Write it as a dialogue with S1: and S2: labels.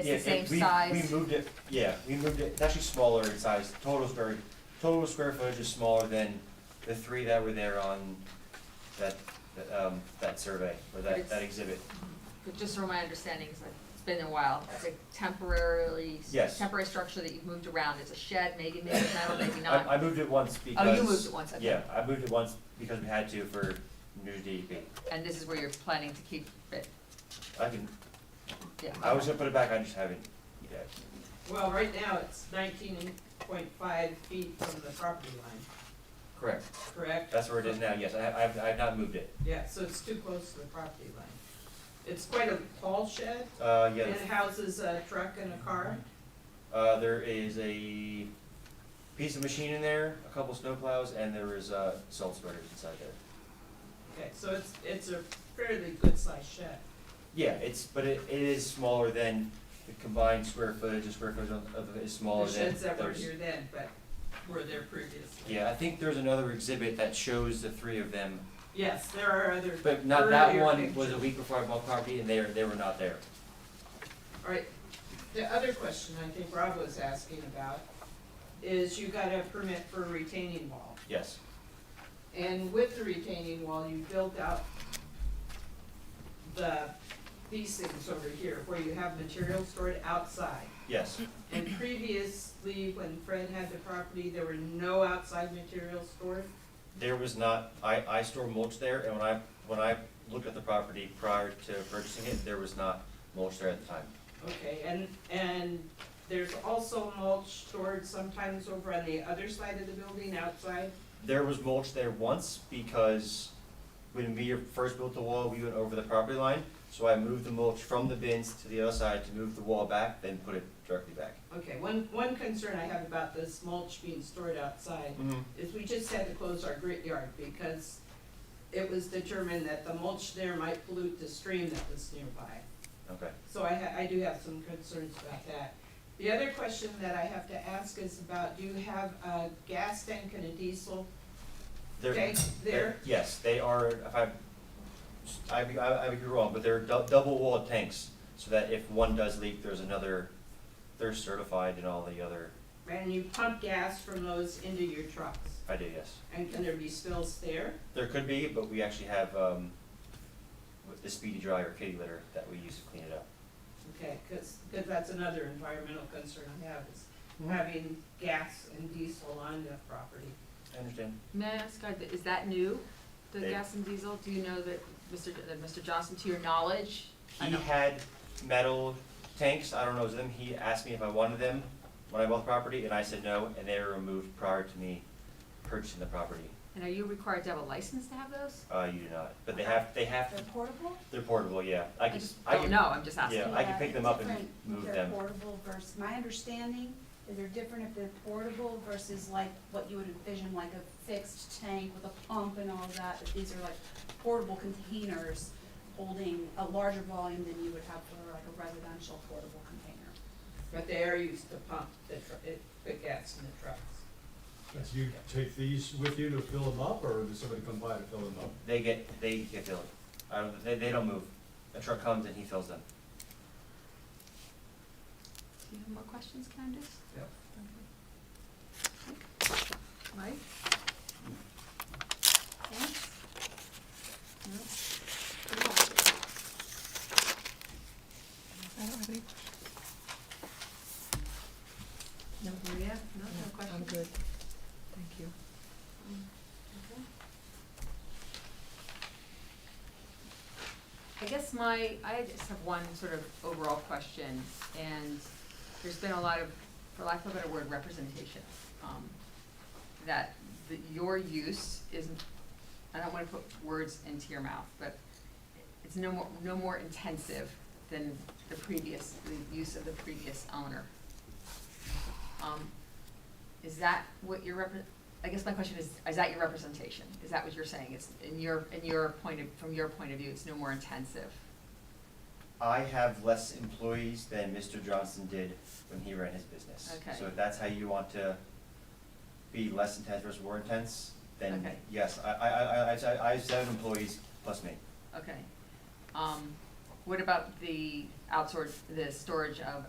S1: It's
S2: Yeah,
S1: the
S2: it-
S1: same
S2: we-
S1: size.
S2: We moved it, yeah, we moved it, it's actually smaller in size, total's very, total square footage is smaller than the three that were there on that, that, um, that survey, or
S1: But
S2: that,
S1: it's-
S2: that exhibit.
S1: But Just from my understanding, it's like, it's been a while, it's a temporarily,
S2: Yes.
S1: temporary structure that you've moved around, it's a shed, maybe, maybe it's metal, maybe not.
S2: I, I moved it once because.
S1: Oh, you moved it once, okay.
S2: Yeah, I moved it once because we had to for new E DEP.
S1: And this is where you're planning to keep it,
S2: I can,
S1: yeah.
S2: I was gonna put it back, I just haven't yet.
S3: Well, right now, it's nineteen point five feet from the property line,
S2: Correct.
S3: correct?
S2: That's where it is now, yes, I, I've, I've not moved it.
S3: Yeah, so it's too close to the property line. It's quite a tall shed,
S2: Uh,
S3: and
S2: yeah,
S3: it houses a truck and a car.
S2: Uh, there is a piece of machine in there, a couple snowplows, and there is, uh, salt spreaders inside there.
S3: Okay, so it's, it's a fairly good-sized shed.
S2: Yeah, it's, but it, it is smaller than the combined square footage, the square footage of, of it is smaller
S3: The
S2: than.
S3: sheds that were
S2: there's-
S3: here then, but were there previously.
S2: Yeah, I think there's another exhibit that shows the three of them,
S3: Yes, there are other,
S2: but not, that
S3: Earlier
S2: one was
S3: picture.
S2: a week before I bought property, and they, were- they were not there.
S3: all right. The other question I think Rob was asking about is you got a permit for a retaining wall.
S2: Yes,
S3: And with the retaining wall, you built out the, these things over here, where you have material stored outside.
S2: yes,
S3: And previously, when Fred had the property, there were no outside materials stored.
S2: there was not, I, I store mulch there, and when I, when I looked at the property prior to purchasing it, there was not mulch there at the time.
S3: Okay, and, and there's also mulch stored sometimes over on the other side of the building outside.
S2: There was mulch there once because when we first built the wall, we went over the property line. So I moved the mulch from the bins to the other side to move the wall back, then put it directly back.
S3: Okay, one, one concern I have about this mulch being stored outside
S2: Mm-hmm.
S3: is we just had to close our grit yard because it was determined that the mulch there might pollute the stream that was nearby.
S2: Okay.
S3: So I ha- I do have some concerns about that. The other question that I have to ask is about, do you have a gas tank and a diesel
S2: There-
S3: tank there?
S2: Yes, they are, if I, I, I I would be wrong, but they're dou- double walled tanks. So that if one does leak, there's another, they're certified and all the other,
S3: And you pump gas from those into your trucks?
S2: I do, yes.
S3: And can there be spills there?
S2: There could be, but we actually have, um, with the speedy dry or kitty litter that we use to clean it up.
S3: Okay, because, that's another environmental concern I have is
S2: Mhm.
S3: having gas and diesel on the property.
S2: I understand.
S1: May I ask, are the- is that new, the
S2: They-
S1: gas and diesel? Do you know that, Mr. J- that Mr. Johnson, to your knowledge? I
S2: He
S1: know.
S2: had metal tanks, I don't know, it was them, he asked me if I wanted them when I bought the property, and I said no, and they were removed prior to me purchasing the property.
S1: And are you required to have a license to have those?
S2: Uh, you do not, but they have, they have,
S4: They're portable?
S2: they're portable, yeah, I
S1: I
S2: can,
S1: just
S2: I
S1: don't
S2: can,
S1: know, I'm just asking.
S2: yeah, I can pick them up and
S4: Different
S2: move
S4: If they're
S2: them.
S4: portable versus, my understanding is they're different if they're portable versus like what you would envision, like a fixed tank with a pump and all that. But these are like portable containers holding a larger volume than you would have for like a residential portable container.
S3: But they are used to pump the, tr- it- the gas in the trucks.
S5: Do you take these with you to fill them up, or does somebody come by to fill them up?
S2: They get, they get filled, I don't, they, they don't move, a truck comes and he fills them.
S1: Do you have more questions, Candace?
S3: Yep.
S1: Mike? Yes? No? Good luck.
S6: I don't have any,
S1: No, Maria, no, no
S6: no,
S1: questions?
S6: I'm good. Thank you.
S1: Okay. I guess my, I just have one sort of overall question, and there's been a lot of, for lack of a better word, representation. um, That, that your use isn't, I don't wanna put words into your mouth, but it's no more, no more intensive than the previous, the use of the previous owner. Um, Is that what your repre- I guess my question is, is that your representation? Is that what you're saying? It's in your, in your point of, from your point of view, it's no more intensive?
S2: I have less employees than Mr. Johnson did when he ran his business.
S1: Okay.
S2: So if that's how you want to be less intense versus more intense, then
S1: Okay.
S2: yes, I, I, I, I- I, I have seven employees plus me.
S1: Okay. Um, what about the outsource, the storage of